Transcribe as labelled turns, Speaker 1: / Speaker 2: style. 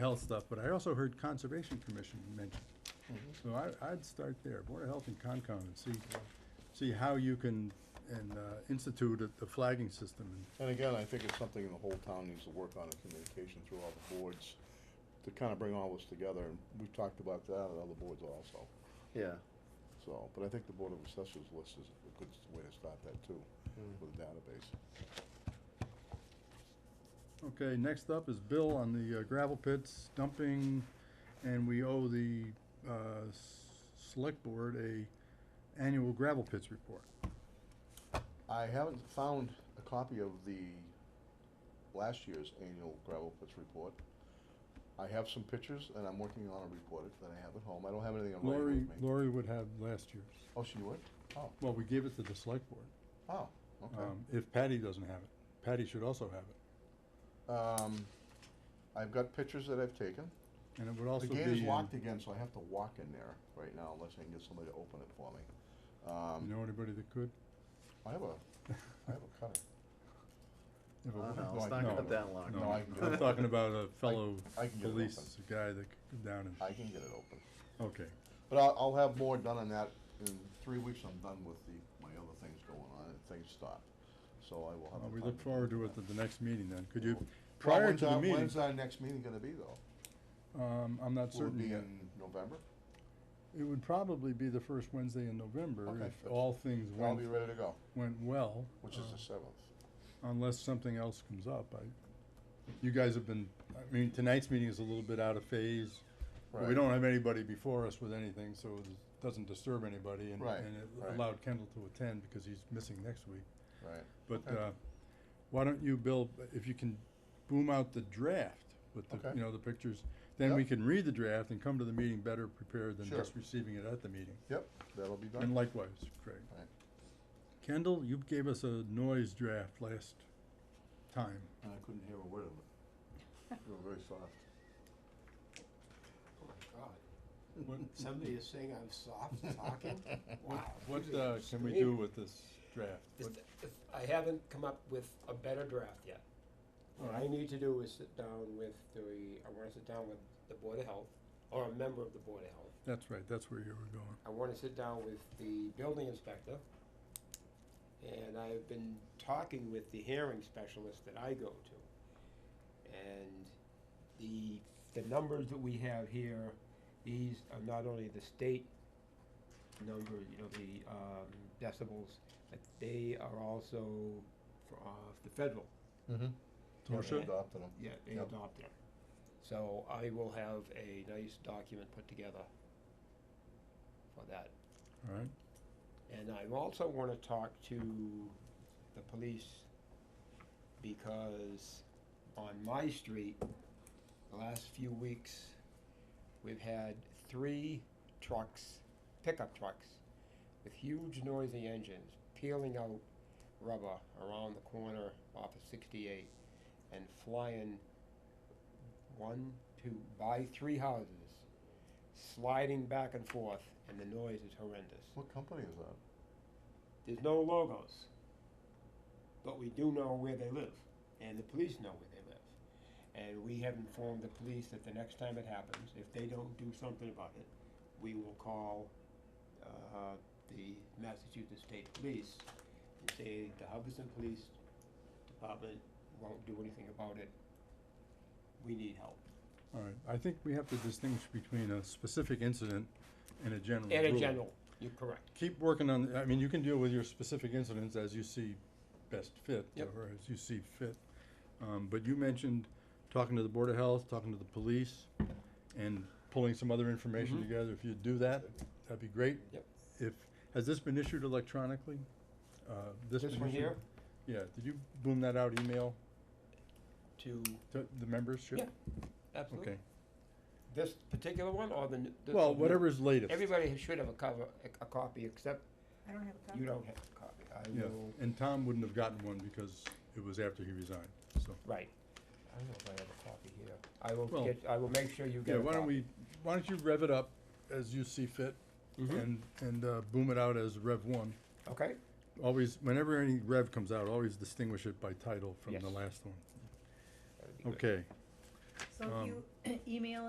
Speaker 1: health stuff, but I also heard Conservation Commission mentioned.
Speaker 2: Mm-hmm.
Speaker 1: So I, I'd start there, Board of Health and Concom, and see, see how you can, and, uh, institute a- the flagging system. and
Speaker 2: And again, I think it's something the whole town needs to work on in communication through all the boards to kind of bring all this together. And We've talked about that at other boards also.
Speaker 3: Yeah.
Speaker 2: So, but I think the Board of Assessors list is a good s- way to start that too, with a database.
Speaker 1: Okay, next up is Bill on the uh, gravel pits dumping, and we owe the, uh, s- select board a annual gravel pits report.
Speaker 2: I haven't found a copy of the last year's annual gravel pits report. I have some pictures and I'm working on a report that I have at home. I don't have anything on
Speaker 1: Lori,
Speaker 2: writing with me.
Speaker 1: Lori would have last year's.
Speaker 2: Oh, she would? Oh,
Speaker 1: Well, we gave it to the select board,
Speaker 2: oh, okay.
Speaker 1: um, if Patty doesn't have it. Patty should also have it,
Speaker 2: Um, I've got pictures that I've taken.
Speaker 1: and it would also
Speaker 2: The
Speaker 1: be. uh, um,
Speaker 2: gate is
Speaker 1: in-
Speaker 2: locked again, so I have to walk in there right now unless I can get somebody to open it for me.
Speaker 1: You
Speaker 2: Um,
Speaker 1: know anybody that could?
Speaker 2: I have a, I have a cutter.
Speaker 1: If a-
Speaker 3: I don't know,
Speaker 2: No,
Speaker 3: it's
Speaker 2: I
Speaker 3: not
Speaker 1: can-
Speaker 3: gonna that long.
Speaker 2: No, I can
Speaker 1: I'm
Speaker 2: get it.
Speaker 1: talking about a fellow
Speaker 2: I can get it
Speaker 1: police,
Speaker 2: open.
Speaker 1: a guy that could go down and,
Speaker 2: I can get it open.
Speaker 1: okay.
Speaker 2: But I'll, I'll have more done on that. In three weeks, I'm done with the, my other things going on and things stop. So I will have.
Speaker 1: Well,
Speaker 2: the
Speaker 1: we
Speaker 2: time
Speaker 1: look
Speaker 2: to
Speaker 1: forward
Speaker 2: do
Speaker 1: to it
Speaker 2: that.
Speaker 1: at the next meeting then. Could you,
Speaker 2: Well,
Speaker 1: prior
Speaker 2: when's
Speaker 1: to the
Speaker 2: our-
Speaker 1: meeting,
Speaker 2: When's our next meeting gonna be though?
Speaker 1: um, I'm not
Speaker 2: Will it
Speaker 1: certain
Speaker 2: be
Speaker 1: yet.
Speaker 2: in November?
Speaker 1: It would probably be the first Wednesday in November
Speaker 2: Okay.
Speaker 1: if all things
Speaker 2: I'll be
Speaker 1: went,
Speaker 2: ready to go,
Speaker 1: went well,
Speaker 2: which is
Speaker 1: uh,
Speaker 2: the seventh.
Speaker 1: unless something else comes up. I, you guys have been, I mean, tonight's meeting is a little bit out of phase. but We
Speaker 2: Right.
Speaker 1: don't have anybody before us with anything, so it doesn't disturb anybody and,
Speaker 2: Right,
Speaker 1: and it
Speaker 2: right.
Speaker 1: allowed Kendall to attend because he's missing next week.
Speaker 2: Right.
Speaker 1: But
Speaker 2: Okay.
Speaker 1: uh, why don't you, Bill, if you can boom out the draft with the,
Speaker 2: Okay.
Speaker 1: you know, the pictures, then we
Speaker 2: Yep.
Speaker 1: can read the draft and come to the meeting better prepared than
Speaker 2: Sure.
Speaker 1: just receiving it at the meeting.
Speaker 2: Yep, that'll be done.
Speaker 1: And likewise, Craig.
Speaker 2: Right.
Speaker 1: Kendall, you gave us a noise draft last time.
Speaker 2: And I couldn't hear a word of it. You were very soft.
Speaker 4: Oh my God.
Speaker 1: What,
Speaker 4: Somebody is saying I'm soft talking? Wow.
Speaker 1: what
Speaker 4: this is
Speaker 1: uh, can we
Speaker 4: extreme.
Speaker 1: do with this draft?
Speaker 4: It's
Speaker 1: What-
Speaker 4: th- if- I haven't come up with a better draft yet. What I need to do is sit down with the, I wanna sit down with the Board of Health, or a member of the Board of Health.
Speaker 1: That's right, that's where you were going.
Speaker 4: I wanna sit down with the building inspector. And I've been talking with the hearing specialist that I go to. And the, the numbers that we have here, these are not only the state number, you know, the um, decibels, but they are also for, uh, the federal.
Speaker 2: Mm-hmm.
Speaker 1: Torsha?
Speaker 2: Adopted them.
Speaker 4: Yeah, they
Speaker 2: Yep.
Speaker 4: adopted them. So I will have a nice document put together for that.
Speaker 1: All right,
Speaker 4: And I also want to talk to the police because on my street, the last few weeks, we've had three trucks, pickup trucks, with huge noisy engines peeling out rubber around the corner off of 68 and flying one, two, by three houses, sliding back and forth, and the noise is horrendous.
Speaker 2: What company is that?
Speaker 4: There's no logos. But we do know where they live, and the police know where they live. And we have informed the police that the next time it happens, if they don't do something about it, we will call uh, the Massachusetts State Police and say the Hubbardston Police Department won't do anything about it. We need help.
Speaker 1: all right. I think we have to distinguish between a specific incident and a general
Speaker 4: And a
Speaker 1: rule.
Speaker 4: general, you're correct.
Speaker 1: keep working on, I mean, you can deal with your specific incidents as you see best fit,
Speaker 4: Yep.
Speaker 1: or as you see fit. Um, but you mentioned talking to the Board of Health, talking to the police, and pulling some other information
Speaker 4: Mhm.
Speaker 1: together. If you do that, that'd be great.
Speaker 4: Yep.
Speaker 1: If, has this been issued electronically? Uh, this
Speaker 4: This
Speaker 1: been
Speaker 4: one
Speaker 1: issued-
Speaker 4: here
Speaker 1: Yeah, did you boom that out email
Speaker 4: to,
Speaker 1: to the membership?
Speaker 4: Yeah, absolutely.
Speaker 1: Okay,
Speaker 4: This particular one or the? n- the-
Speaker 1: well,
Speaker 4: the new-
Speaker 1: whatever's latest.
Speaker 4: Everybody should have a cover, a, a copy, except
Speaker 5: I don't have a copy.
Speaker 4: you don't have a copy. I
Speaker 1: Yeah,
Speaker 4: will,
Speaker 1: and Tom wouldn't have gotten one because it was after he resigned, so.
Speaker 4: right. I don't know if I have a copy here. I will
Speaker 1: Well-
Speaker 4: get, I will make sure you get
Speaker 1: Yeah,
Speaker 4: a
Speaker 1: why don't
Speaker 4: copy.
Speaker 1: we, why don't you rev it up as you see fit
Speaker 4: Mhm.
Speaker 1: and, and uh, boom it out as Rev One.
Speaker 4: Okay,
Speaker 1: Always, whenever any rev comes out, always distinguish it by title from the
Speaker 4: Yes.
Speaker 1: last one.
Speaker 4: that'd be good.
Speaker 1: Okay.
Speaker 5: So if
Speaker 6: Um,
Speaker 5: you email